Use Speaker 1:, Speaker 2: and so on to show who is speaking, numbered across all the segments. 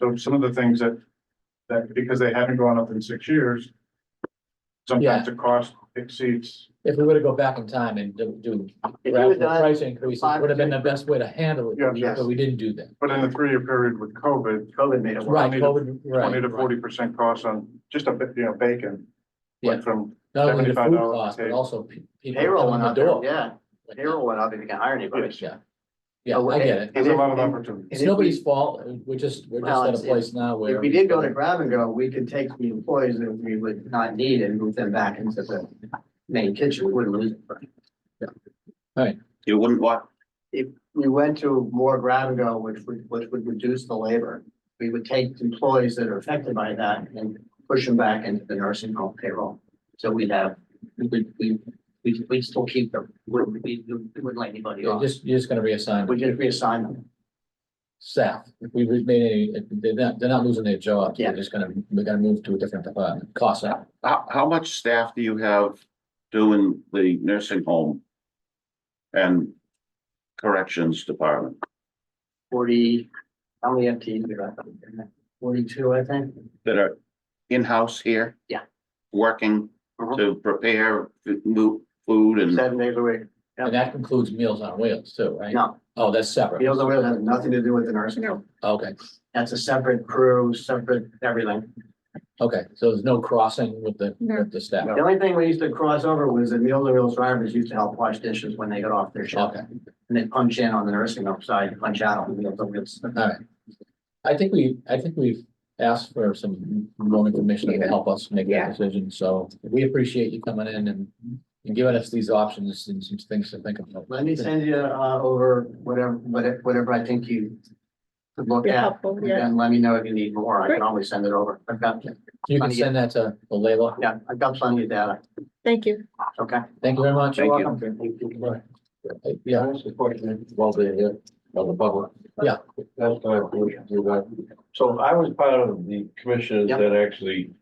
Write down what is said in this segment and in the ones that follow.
Speaker 1: So some of the things that, that because they haven't gone up in six years. Sometimes the cost exceeds,
Speaker 2: If we were to go back in time and do, do
Speaker 3: If you
Speaker 2: gradual
Speaker 3: had done,
Speaker 2: price increases,
Speaker 3: five or
Speaker 2: would have been the
Speaker 3: six-
Speaker 2: best way to handle it,
Speaker 1: Yeah.
Speaker 2: but we didn't do that.
Speaker 1: but in the three-year period with COVID,
Speaker 3: COVID made it work.
Speaker 2: Right,
Speaker 1: Twenty to-
Speaker 2: COVID, right.
Speaker 1: twenty to
Speaker 2: right.
Speaker 1: forty percent cost on just a bit, you know, bacon. Went from,
Speaker 2: Not only the food
Speaker 1: $75
Speaker 2: cost, but
Speaker 1: case.
Speaker 2: also pe- people
Speaker 3: Payroll
Speaker 2: coming in
Speaker 3: went
Speaker 2: the
Speaker 3: up, there,
Speaker 2: door.
Speaker 3: yeah,
Speaker 2: Like,
Speaker 3: payroll went up if you can hire anybody.
Speaker 2: Yeah, yeah, I get it.
Speaker 1: there's a lot of
Speaker 3: And if-
Speaker 1: opportunity.
Speaker 2: It's
Speaker 3: and if we-
Speaker 2: nobody's fault, we're just, we're
Speaker 3: Well,
Speaker 2: just
Speaker 3: it's-
Speaker 2: at a place now where.
Speaker 3: If we did go to grab and go, we could take the employees that we would not need and move them back into the main kitchen, we wouldn't lose. them.
Speaker 4: You wouldn't want,
Speaker 3: We went to more grab and go, which would, which would reduce the labor. We would take employees that are affected by that and push them back into the nursing home payroll. So we'd have, we, would- we, we, we'd still keep them, we, we, we wouldn't let anybody
Speaker 2: You're
Speaker 3: off.
Speaker 2: just, you're just gonna reassign
Speaker 3: We just reassign them.
Speaker 2: staff. If we made any, if they're not, they're not losing their jobs.
Speaker 3: Yeah.
Speaker 2: They're just gonna, we're gonna move to a different department, cost out.
Speaker 4: how, how much staff do you have doing the nursing home? And corrections department?
Speaker 3: Forty, how many FTEs we got? Forty-two, I think.
Speaker 4: that are in-house here?
Speaker 3: Yeah.
Speaker 4: Working
Speaker 3: Mhm.
Speaker 4: to prepare f- mo- food and,
Speaker 3: Seven days a week. Yep.
Speaker 2: And that includes Meals on Wheels too, right?
Speaker 3: No,
Speaker 2: Oh, that's separate.
Speaker 3: Meals on Wheels has nothing to do with the nursing home.
Speaker 2: Okay,
Speaker 3: That's a separate crew, separate everything.
Speaker 2: okay. So there's no crossing with the,
Speaker 5: No.
Speaker 2: with the staff.
Speaker 3: The only thing we used to cross over was that Meals on Wheels drivers used to help wash dishes when they got off their shift.
Speaker 2: Okay.
Speaker 3: And they punch in on the nursing home side, punch out on the Meals on Wheels.
Speaker 2: I think we, I think we've asked for some more information that will help us make
Speaker 5: Yeah.
Speaker 2: that decision, so we appreciate you coming in and. And giving us these options and some things to think about.
Speaker 3: Let me send you, uh, over whatever, whatever, whatever I think you could look
Speaker 5: Yeah,
Speaker 3: at.
Speaker 5: helpful, yeah.
Speaker 3: And let me know if you need more. I
Speaker 5: Great.
Speaker 3: can always send it over. I've got,
Speaker 2: You can send that to the label.
Speaker 3: yeah, I've got plenty of data.
Speaker 5: Thank you.
Speaker 3: Okay.
Speaker 2: Thank you very much.
Speaker 4: Thank you.
Speaker 2: Right. Yeah.
Speaker 6: Well, the, uh, on the public.
Speaker 2: Yeah.
Speaker 6: That's why I believe you got- So I was part of the commissioners
Speaker 3: Yep.
Speaker 6: that actually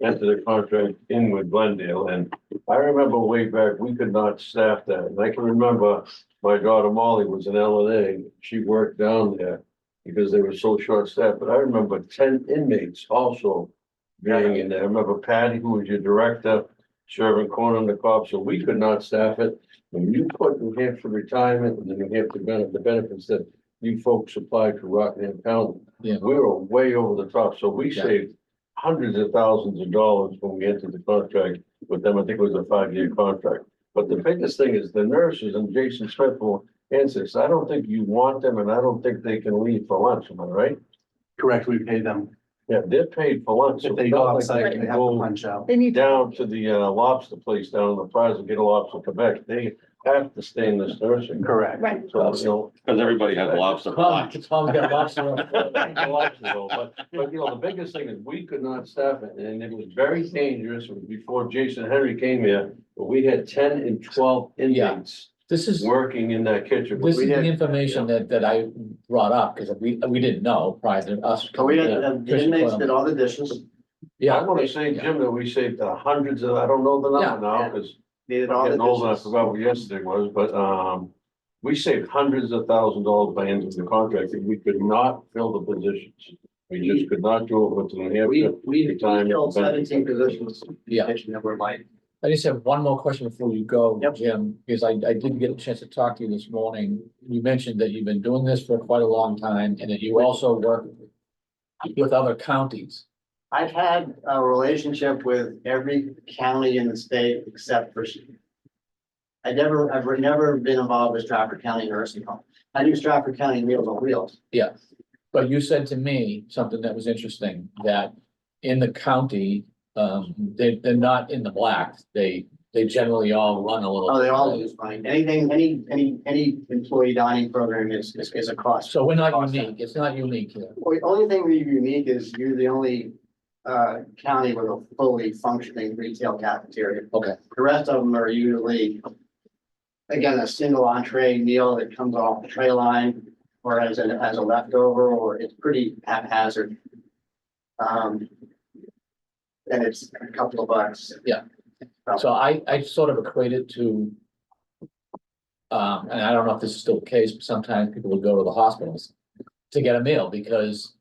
Speaker 6: entered a contract in with Glendale, and I remember way back, we could not staff that, and I can remember my daughter Molly was in LNA, she worked down there because they were so short staffed, but I remember ten inmates also being in there. I remember Patty, who was your director, serving corn on the cob, so we could not staff it. When you put New Hampshire retirement and the New Hampshire benefit, the benefits that you folks applied to Rockingham County.
Speaker 2: Yeah.
Speaker 6: We were way over the top, so we
Speaker 2: Yeah.
Speaker 6: saved hundreds of thousands of dollars when we entered the contract with them. I think it was a five-year contract. But the biggest thing is the nurses and Jason Smith will answer this. I don't think you want them and I don't think they can leave for lunch, am I right?
Speaker 3: Correct, we pay them.
Speaker 6: Yeah, they're paid for lunch. so it's not like can go-
Speaker 3: out.
Speaker 5: They need to
Speaker 6: down to the uh, lobster place down in the prize and get a lobster Quebec, they have to stay in this nursing.
Speaker 3: Correct.
Speaker 5: Right.
Speaker 6: So, you know.
Speaker 4: because everybody has lobster.
Speaker 2: Tom, Tom's got lots of.
Speaker 6: But, but, you know, the biggest thing is we could not staff it, and it was very dangerous It was before Jason Henry came here, but we had ten and twelve inmates
Speaker 2: This is,
Speaker 6: working in that kitchen.
Speaker 2: this is
Speaker 6: We
Speaker 2: the
Speaker 6: had-
Speaker 2: information that, that I brought up, because we, we didn't know prior to us.
Speaker 3: So we uh, had,
Speaker 2: Yeah.
Speaker 3: Oh, the inmates did all the dishes,
Speaker 6: I
Speaker 2: Yeah,
Speaker 6: wanna say, Jim, that we saved uh, hundreds of, I don't know the number
Speaker 3: Yeah,
Speaker 6: now,
Speaker 3: yeah.
Speaker 6: because
Speaker 3: they did
Speaker 6: I'm
Speaker 3: all the
Speaker 6: Getting old, and I
Speaker 3: dishes.
Speaker 6: forgot what yesterday was, but, um, we saved hundreds of thousand dollars by end of the contract, and we could not fill the positions. We just could not do it with the
Speaker 3: We,
Speaker 6: New
Speaker 3: we
Speaker 6: Anytime.
Speaker 3: filled seventeen positions. in the
Speaker 2: Yeah.
Speaker 3: Kitchen that were like,
Speaker 2: I just have one more question before you go,
Speaker 3: Yep.
Speaker 2: Jim, because I, I didn't get a chance to talk to you this morning. You mentioned that you've been doing this for quite a long time and that you also work with other counties.
Speaker 3: I've had a relationship with every county in the state except for. I never, I've never been involved with Stratford County Nursing Home. I knew Stratford County Meals on Wheels.
Speaker 2: But you said to me something that was interesting, that in the county, um, they, they're not in the black. They, they generally all run a little.
Speaker 3: Oh, they all lose money. Anything, any, any, any employee dining program is, is, is a cost.
Speaker 2: So we're not unique. It's not unique here.
Speaker 3: Well, the only thing that's unique is you're the only uh county with a fully functioning retail cafeteria.
Speaker 2: Okay.
Speaker 3: The rest of them are usually, again, a single entree meal that comes off the tray line or as a, as a leftover, or it's pretty haphazard. Um, and it's a couple of bucks.
Speaker 2: So I, I sort of equate it to. Um, and I don't know if this is still the case, but sometimes people would go to the hospitals to get a meal because